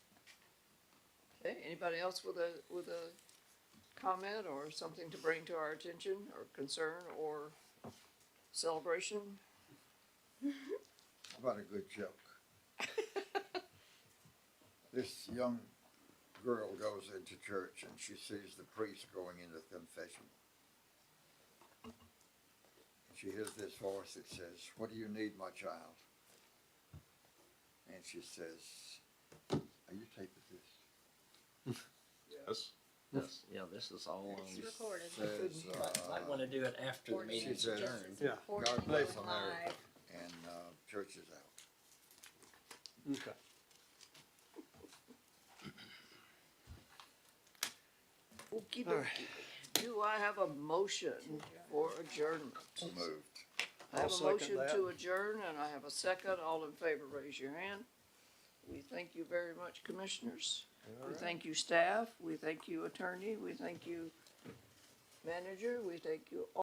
Okay, anybody else with a, with a comment or something to bring to our attention or concern or celebration? How about a good joke? this young girl goes into church and she sees the priest going into confession. She hears this voice that says, What do you need, my child? And she says, Are you taping this? Yes. This, yeah, this is all on. It's recorded. Says, uh, Might wanna do it after the Recorded. meeting's She said- adjourned. Yeah. God Recorded bless live. America. And uh, church is out. Okay. Okey All right. dokey. Do I have a motion for adjournment? Moved. I have I'll a second motion to that. adjourn and I have a second. All in favor, raise your hand. We thank you very much, commissioners. We thank you, staff. We thank you, attorney. We thank you, manager. We thank you,